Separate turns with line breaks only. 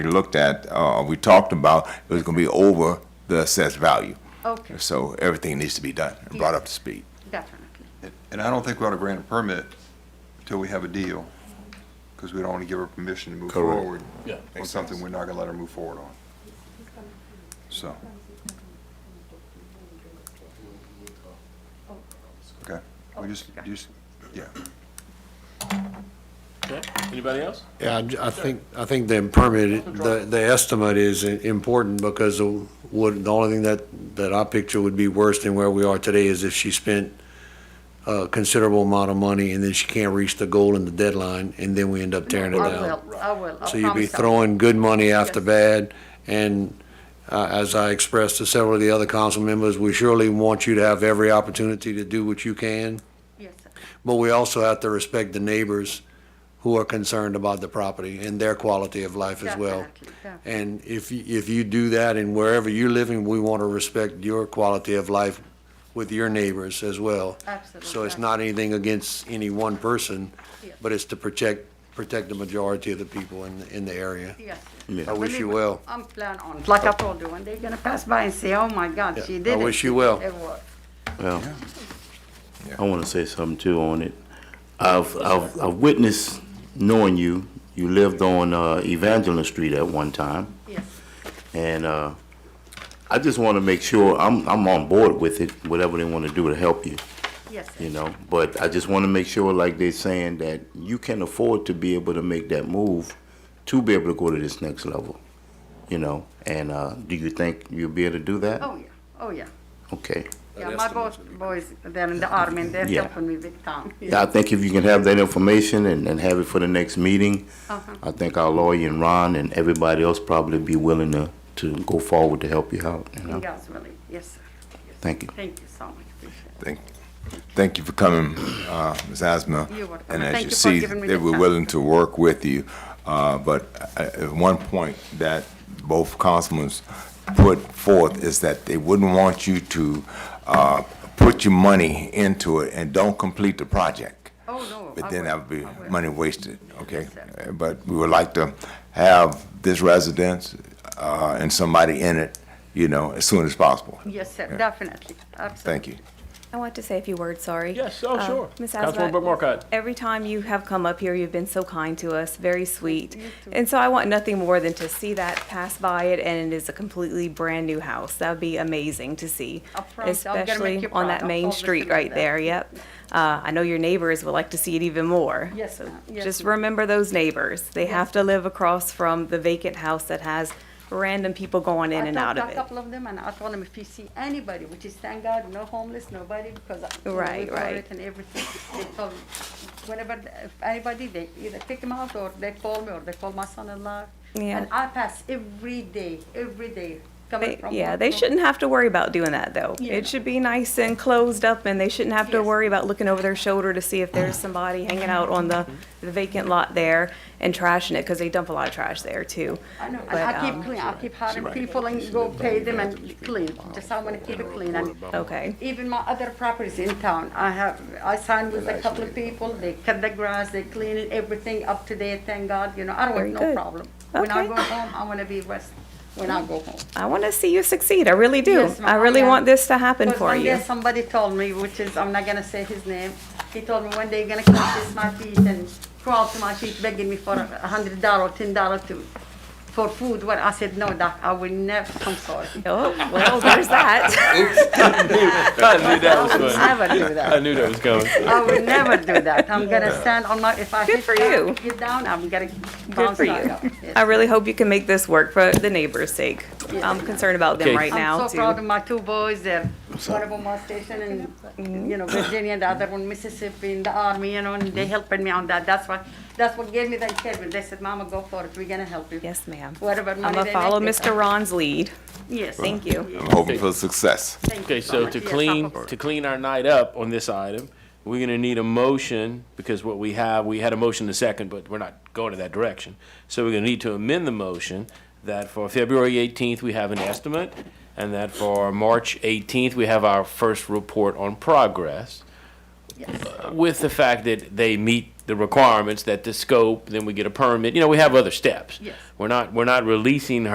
we looked at, uh, we talked about, it was gonna be over the assessed value.
Okay,
So everything needs to be done and brought up to speed.
definitely.
And I don't think we ought to grant a permit until we have a deal, because we don't want to give her permission to move
Correct.
forward
Yeah.
on something we're not going to let her move forward on. So. Okay, we just, just, yeah.
Okay, anybody else?
Yeah, I j- I think, I think the permit, the, the estimate is i- important because the would, the only thing that, that I picture would be worse than where we are today is if she spent a considerable amount of money and then she can't reach the goal and the deadline, and then we end up tearing it
I
down.
will, I will. I
So you'd be
promise I will.
throwing good money after
Yes.
bad, and uh, as I expressed to several of the other council members, we surely want you to have every opportunity to do what you can.
Yes, sir.
But we also have to respect the neighbors who are concerned about the property and their quality of life as well.
Definitely, definitely.
And if, you- if you do that and wherever you're living, we want to respect your quality of life with your neighbors as well.
Absolutely.
So it's not anything against any one person,
Yes.
but it's to protect, protect the majority of the people in, in the area.
Yes.
I wish you
Believe me,
well.
I'm plan on, like I told you, when they're gonna pass by and say, oh my God,
Yeah,
she
I
did it.
wish you well.
It worked.
Well, I want to say something too on it. I've, I've, I've witnessed knowing you, you lived on uh, Evangeline Street at one time.
Yes,
And uh, I just want to make sure I'm, I'm on board with it, whatever they want to do to help you,
yes, sir.
you know? But I just want to make sure, like they're saying, that you can afford to be able to make that move to be able to go to this next level, you know? And uh, do you think you'll be able to do that?
Oh, yeah, oh, yeah.
Okay.
Yeah, my boys, boys, they're in the army and they're
Yeah.
helping me big time.
Yeah, I think if you can have that information and, and have it for the next meeting,
Uh-huh.
I think our lawyer and Ron and everybody else probably be willing to, to go forward to help you out, you
In
know?
God's willing, yes, sir. Yes, sir.
Thank you.
Thank you so much, appreciate
Thank, thank you for coming, uh, Ms. Asma.
You're welcome.
And as
Thank
you
you for
see,
giving me
they
the
were
time.
willing to work with you. Uh, But at at one point that both councilmen put forth is that they wouldn't want you to uh, put your money into it and don't complete the project.
Oh, no, I
But then
will.
that would be
I will.
money wasted, okay?
Yes, sir.
Uh, But we would like to have this residence uh, and somebody in it, you know, as soon as possible.
it. Yes, sir, definitely, absolutely.
Thank you.
I want to say a few words, sorry.
Yes, oh,
Um,
sure.
Ms.
Councilwoman
Asmat,
Brooke Markcott.
every time you have come up here, you've been so kind to us, very sweet. And so I want nothing more than to see that pass by it, and it is a completely brand-new house. That would be amazing to see.
I promise you, I'm gonna make you
Especially on
proud.
that
I
main
promise you
street
about
right
that.
there, yep. Uh, I know your neighbors would like to see it even more.
Yes,
So
ma'am. Yes,
Just
ma'am.
remember those neighbors. They have to live across from the vacant house that has random people going in and out
I
of
talked
it.
to a couple of them, and I told them if you see anybody, which is thank God, no homeless, nobody, because you know,
Right,
we cover
right.
it and everything. They told whenever th- if anybody, they either pick them out or they call me or they call my son-in-law.
Yeah.
And I pass every day, every day coming
They-
from.
yeah,
work,
they
from-
shouldn't have to worry about doing that though.
Yeah.
It should be nice and closed up, and they shouldn't have to
Yes.
worry about looking over their shoulder to see if there's somebody hanging out on the, the vacant lot there and trashing it because they dump a lot of trash there too.
I know, and
But,
I keep
um,
clean. I keep hiring people and go pay them and clean. Just I want to keep it clean and.
Okay.
Even my other properties in town, I have, I signed with a couple of people, they cut the grass, they clean it, everything up to date, thank God, you know, I don't
Very
want no
good.
problem. When I
Okay.
go home, I wanna be west, when I go home.
I want to see you succeed. I really do.
Yes, ma'am,
I really
am.
want this to happen
Because
for
one day
you.
Somebody told me, which is, I'm not gonna say his name, he told me one day you're gonna come kiss my feet and crawl to my feet begging me for a hundred dollar, ten dollar to, for food, Well, I said, no, doc, I will never, I'm sorry.
Oh, well, there's that.
I knew that was
I will
going.
never do that.
I knew that was going.
I would never do that. I'm gonna stand on my, if I
Good
hit
for
down,
you.
hit down, I'm gonna
Good
bounce
for
back
you.
up. Yes.
I really hope you can make this work for the neighbors' sake. I'm concerned about them
Okay.
right now
I'm so proud of
too.
my two boys. They're one of them was stationed in, you know, Virginia, and the other one Mississippi in the army, you know, and they helping me on that. That's what, that's what gave me the encouragement. They said, Mama, go for it. We're gonna help you.
Yes, ma'am.
Whatever
I'm
money
gonna
they
follow
make, they-
Mr. Ron's lead.
Yes.
Thank you.
I'm hoping for success.
Thank you
Okay, so
much.
to
Yes, I
clean,
hope so.
to clean our night up on this item, we're gonna need a motion, because what we have, we had a motion to second, but we're not going in that direction. So we're gonna need to amend the motion that for February eighteenth, we have an estimate, and that for March eighteenth, we have our first report on progress. with the fact that they meet the requirements, that the scope, then we get a permit, you know, we have other steps.
Yes.
We're not, we're not releasing her.